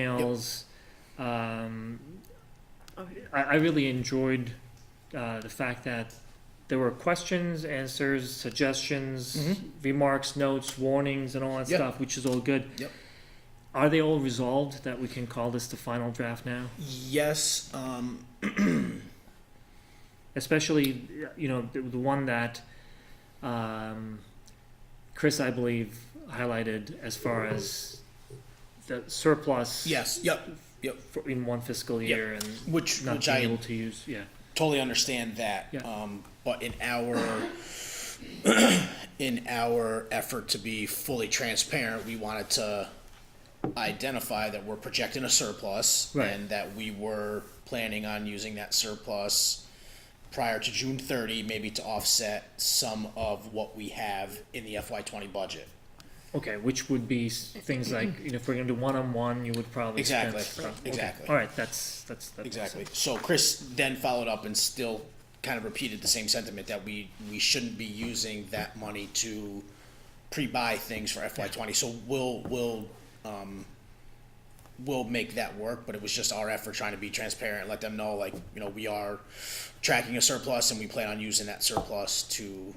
emails. Um, I, I really enjoyed uh, the fact that there were questions, answers, suggestions, Mhm. remarks, notes, warnings, and all that Yeah. stuff, which is all good. Yep. Are they all resolved that we can call this the final draft now? Yes, um, Especially, you know, the, the one that um, Chris, I believe, highlighted as far as the surplus yes, yep, for, in one fiscal Yep. year and which, not which being I able to use. Yeah. totally understand that. Yeah. Um, but in our, in our effort to be fully transparent, we wanted to identify that we're projecting a surplus. Right. And that we were planning on using that surplus prior to June thirty, maybe to offset some of what we have in the FY twenty budget. Okay, which would be s- things like, you know, if we're gonna do one-on-one, you would probably spend Exactly, stuff. Okay, exactly. All right, that's, that's, that's. Exactly. So Chris then followed up and still kind of repeated the same sentiment that we, we shouldn't be using that money to pre-buy things for FY twenty. So we'll, we'll, um, we'll make that work, but it was just our effort trying to be transparent, let them know like, you know, we are tracking a surplus and we plan on using that surplus to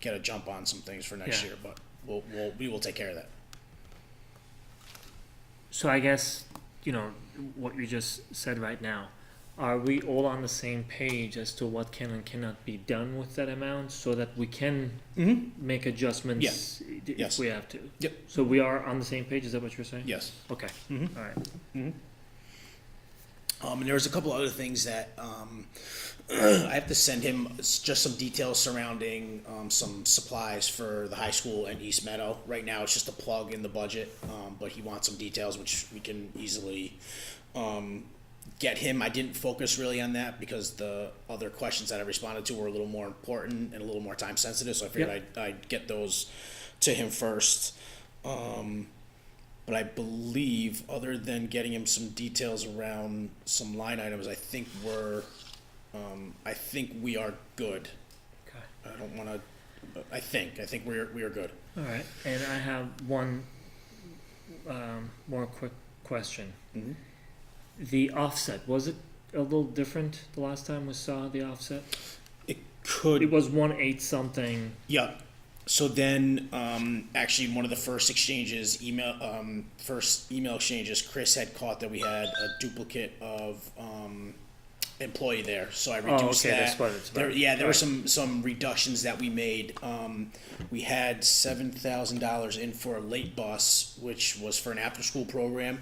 get a jump on some things for next Yeah. year, but we'll, we'll, we will take care of that. So I guess, you know, what you just said right now, are we all on the same page as to what can and cannot be done with that amount so that we can make adjustments i- if Mm-hmm. Yes. we have to? Yep. So we are on the same page, is that what you're saying? Yes. Okay, Mm-hmm. all right. Um, and there was a couple other things that um, I have to send him s- just some details surrounding um, some supplies for the high school and East Meadow. Right now, it's just a plug in the budget, um, but he wants some details, which we can easily um, get him. I didn't focus really on that because the other questions that I responded to were a little more important and a little more time sensitive, so I figured Yep. I'd, I'd get those to him first. But I believe, other than getting him some details around some line items, I think we're, um, I think we are good. Okay. I don't wanna, I think, I think we're, we are good. All right, and I have one um, more quick question. Mhm. The offset, was it a little different the last time we saw the offset? It It could, was one eight something, yeah. So then, um, actually, one of the first exchanges, email, um, first email exchanges, Chris had caught that we had a duplicate of, um, employee there, so I Oh, reduced okay, that. that's what it's about. There, yeah, there were Right. some, some reductions that we made. Um, we had seven thousand dollars in for a late bus, which was for an after-school program.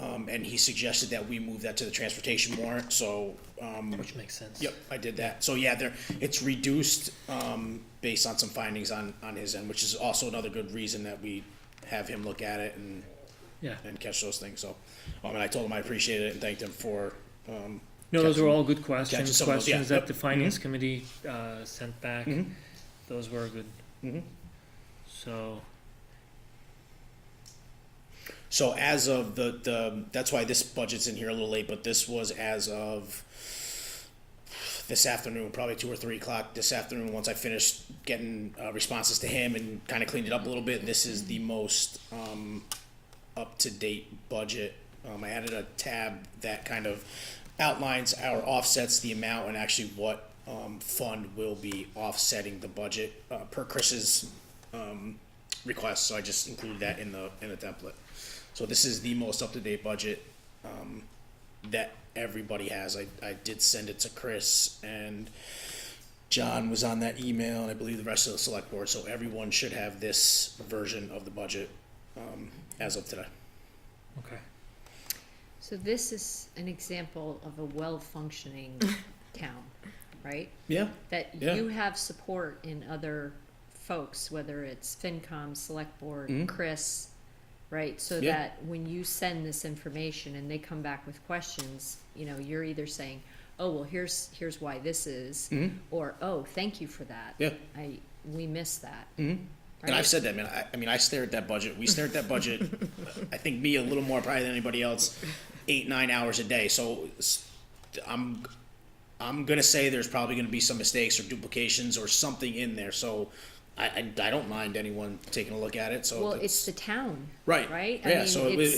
Um, and he suggested that we move that to the transportation warrant, so, um, which makes sense. Yep, I did that. So yeah, there, it's reduced, um, based on some findings on, on his end, which is also another good reason that we have him look at it and, Yeah, and catch those things, so. Um, and I told him I appreciated it and thanked him for, um, no, those Catching- were all good questions, some of those, yeah, questions that yep. the finance committee uh, sent back. Those were good. Mhm. So, so as of the, the, that's why this budget's in here a little late, but this was as of this afternoon, probably two or three o'clock this afternoon, once I finished getting, uh, responses to him and kinda cleaned it up a little bit, this is the most, um, up-to-date budget. Um, I added a tab that kind of outlines our offsets, the amount, and actually what um, fund will be offsetting the budget uh, per Chris's um, request. So I just included that in the in the template. So this is the most up to date budget um, that everybody has. I, I did send it to Chris and John was on that email, and I believe the rest of the select board. So everyone should have this version of the budget um, as of today. okay. So this is an example of a well-functioning town, right? Yeah. That Yeah. you have support in other folks, whether it's FinCom, Select Board, Chris, right? So Mm-hmm. Yeah. that when you send this information and they come back with questions, you know, you're either saying, oh, well, here's, here's why this is, or, oh, thank you for that. Mm-hmm. Yeah. Mm-hmm. I, we missed that. And I've Right? said that, man. I, I mean, I stare at that budget. We stare at that budget. I think me a little more probably than anybody else, eight nine hours a day. So s- I'm I'm gonna say there's probably gonna be some mistakes or duplications or something in there. So I, I, I don't mind anyone taking a look at it. So Well, if it's the town. Right. Right? I Yeah. mean, so it, it's- was-